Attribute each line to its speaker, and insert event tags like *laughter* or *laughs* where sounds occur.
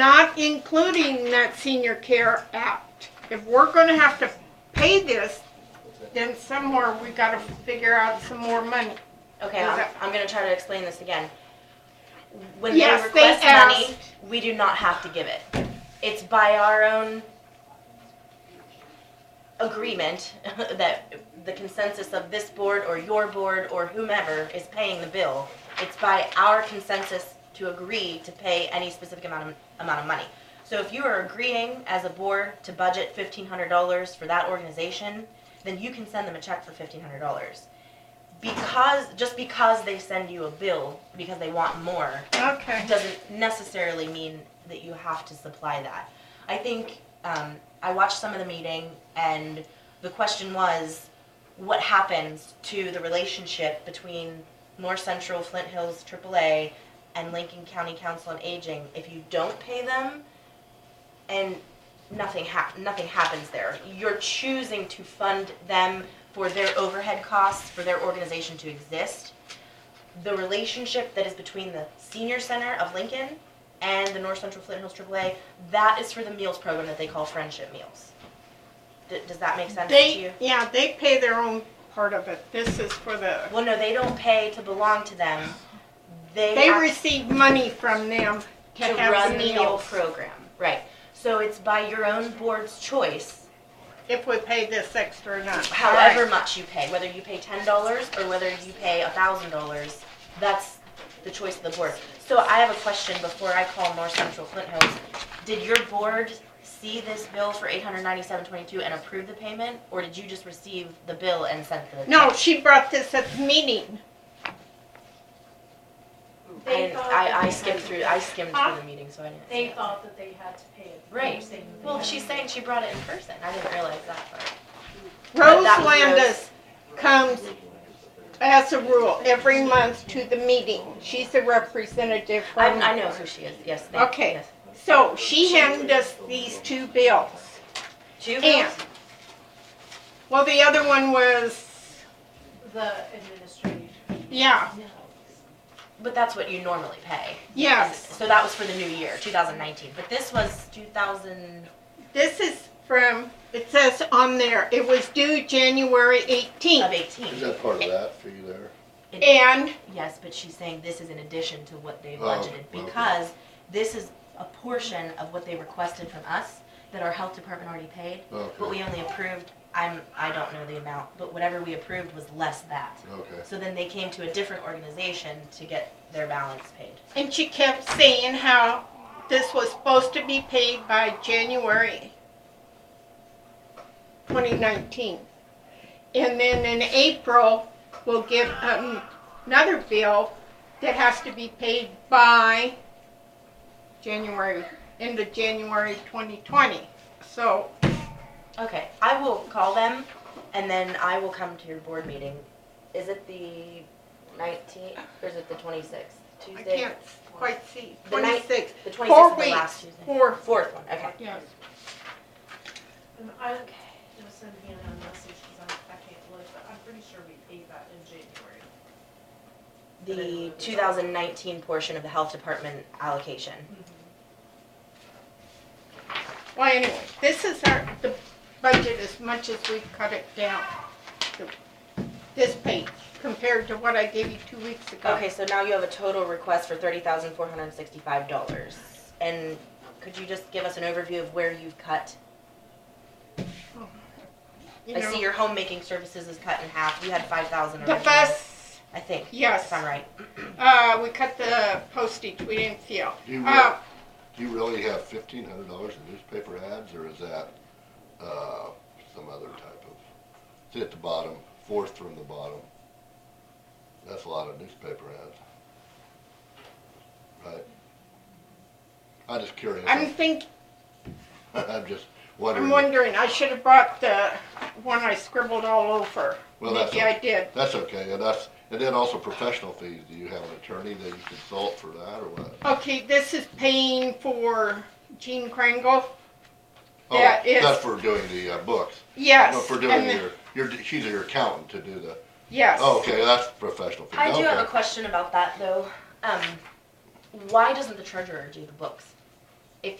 Speaker 1: not including that Senior Care Act. If we're gonna have to pay this, then somewhere we gotta figure out some more money.
Speaker 2: Okay, I'm,
Speaker 1: Okay.
Speaker 2: I'm gonna try to explain this again. When they
Speaker 1: Yes, they
Speaker 2: request money,
Speaker 1: asked.
Speaker 2: we do not have to give it. It's by our own agreement *laughs* that the consensus of this board or your board or whomever is paying the bill. It's by our consensus to agree to pay any specific amount of, amount of money. So if you are agreeing as a board to budget fifteen hundred dollars for that organization, then you can send them a check for fifteen hundred dollars because just because they send you a bill because they want more
Speaker 1: Okay.
Speaker 2: doesn't necessarily mean that you have to supply that. I think um, I watched some of the meeting, and the question was, what happens to the relationship between North Central, Flint Hills, AAA, and Lincoln County Council on Aging if you don't pay them, and nothing hap- nothing happens there. You're choosing to fund them for their overhead costs for their organization to exist the relationship that is between the senior center of Lincoln and the North Central Flint Hills AAA, that is for the meals program that they call Friendship Meals. D- does that make sense to you?
Speaker 1: They, yeah, they pay their own part of it. This is for the,
Speaker 2: Well, no, they don't pay to belong to them. They,
Speaker 1: they
Speaker 2: have
Speaker 1: receive money from them to
Speaker 2: to run
Speaker 1: have the
Speaker 2: the meal
Speaker 1: meals.
Speaker 2: program, right? So it's by your own board's choice
Speaker 1: If we pay this extra or not.
Speaker 2: however
Speaker 1: Alright.
Speaker 2: much you pay, whether you pay ten dollars or whether you pay a thousand dollars, that's the choice of the board. So I have a question before I call North Central Flint Hills. Did your board see this bill for eight hundred ninety-seven twenty-two and approve the payment, or did you just receive the bill and sent the?
Speaker 1: No, she brought this at the meeting.
Speaker 2: And I, I skimmed through, I skimmed
Speaker 1: Huh?
Speaker 2: through the meeting, so I didn't. see
Speaker 3: They
Speaker 2: it.
Speaker 3: thought that they had to pay it. They were
Speaker 2: Right.
Speaker 3: saying that they
Speaker 2: Well,
Speaker 3: had
Speaker 2: she's
Speaker 3: to.
Speaker 2: saying she brought it in person. I didn't realize that part. But
Speaker 1: Rose
Speaker 2: that was Rose.
Speaker 1: Landis comes as a rule every month to the meeting. She's a representative
Speaker 2: I,
Speaker 1: from.
Speaker 2: I know who she is. Yes. thank-
Speaker 1: Okay.
Speaker 2: yes.
Speaker 1: So she handed us these two bills.
Speaker 2: Two
Speaker 1: And,
Speaker 2: bills.
Speaker 1: well, the other one was,
Speaker 3: The administrative.
Speaker 1: yeah,
Speaker 2: But that's what you normally pay.
Speaker 1: yes.
Speaker 2: So that was for the new year, 2019. But this was 2000.
Speaker 1: This is from, it says on there, it was due January
Speaker 2: Of
Speaker 1: 18th.
Speaker 4: Is
Speaker 2: 18.
Speaker 4: that part of that fee there?
Speaker 1: And
Speaker 2: Yes, but she's saying this is in addition to what they
Speaker 4: Oh,
Speaker 2: budgeted
Speaker 4: okay.
Speaker 2: because this is a portion of what they requested from us that our health department already paid, but
Speaker 4: Oh, Okay,
Speaker 2: we only approved. I'm I don't know the amount, but whatever we approved was less that.
Speaker 4: okay.
Speaker 2: So then they came to a different organization to get their balance paid.
Speaker 1: And she kept saying how this was supposed to be paid by January 2019. And then in April, we'll get um, another bill that has to be paid by January, end of January 2020. So,
Speaker 2: Okay, I will call them, and then I will come to your board meeting. Is it the nineteenth, or is it the twenty-sixth?
Speaker 1: I
Speaker 2: Tuesday?
Speaker 1: can't quite see.
Speaker 2: The night-
Speaker 1: 26,
Speaker 2: The
Speaker 1: four
Speaker 2: twenty-sixth is the last
Speaker 1: weeks,
Speaker 2: Tuesday.
Speaker 1: four,
Speaker 2: Fourth one, okay.
Speaker 1: yes.
Speaker 3: And I, okay, just send me a message because I, I can't look, but I'm pretty sure we paid that in January.
Speaker 2: The two thousand nineteen portion of the health department allocation.
Speaker 1: Well, anyway, this is our, the budget as much as we cut it down. the- This page compared to what I gave you two weeks ago.
Speaker 2: Okay, so now you have a total request for thirty thousand four hundred and sixty-five dollars. And could you just give us an overview of where you've cut?
Speaker 1: You
Speaker 2: I see
Speaker 1: know,
Speaker 2: your homemaking services is cut in half. You had five thousand
Speaker 1: the
Speaker 2: originally.
Speaker 1: bus,
Speaker 2: I think,
Speaker 1: yes,
Speaker 2: if I'm right.
Speaker 1: uh, we cut the postage, we didn't feel.
Speaker 4: Do you, re-
Speaker 1: Uh,
Speaker 4: do you really have fifteen hundred dollars in newspaper ads, or is that, uh, some other type of? It's at the bottom, fourth from the bottom. That's a lot of newspaper ads. Right? I'm just curious.
Speaker 1: I'm think,
Speaker 4: *laughs* I'm just
Speaker 1: I'm
Speaker 4: wondering.
Speaker 1: wondering, I should have brought the one I scribbled all over.
Speaker 4: Well, that's
Speaker 1: Maybe I did.
Speaker 4: That's okay, and that's, and then also professional fees. Do you have an attorney that you consult for that, or what?
Speaker 1: Okay, this is paying for Jean Kringle.
Speaker 4: Oh,
Speaker 1: Yeah, it's-
Speaker 4: That's for doing the uh, books.
Speaker 1: Yes.
Speaker 4: No, for
Speaker 1: and
Speaker 4: doing
Speaker 1: the-
Speaker 4: your, your, she's your accountant to do the,
Speaker 1: Yes.
Speaker 4: oh, okay, that's professional fee,
Speaker 2: I do have a
Speaker 4: okay.
Speaker 2: question about that though. Um, why doesn't the treasurer do the books?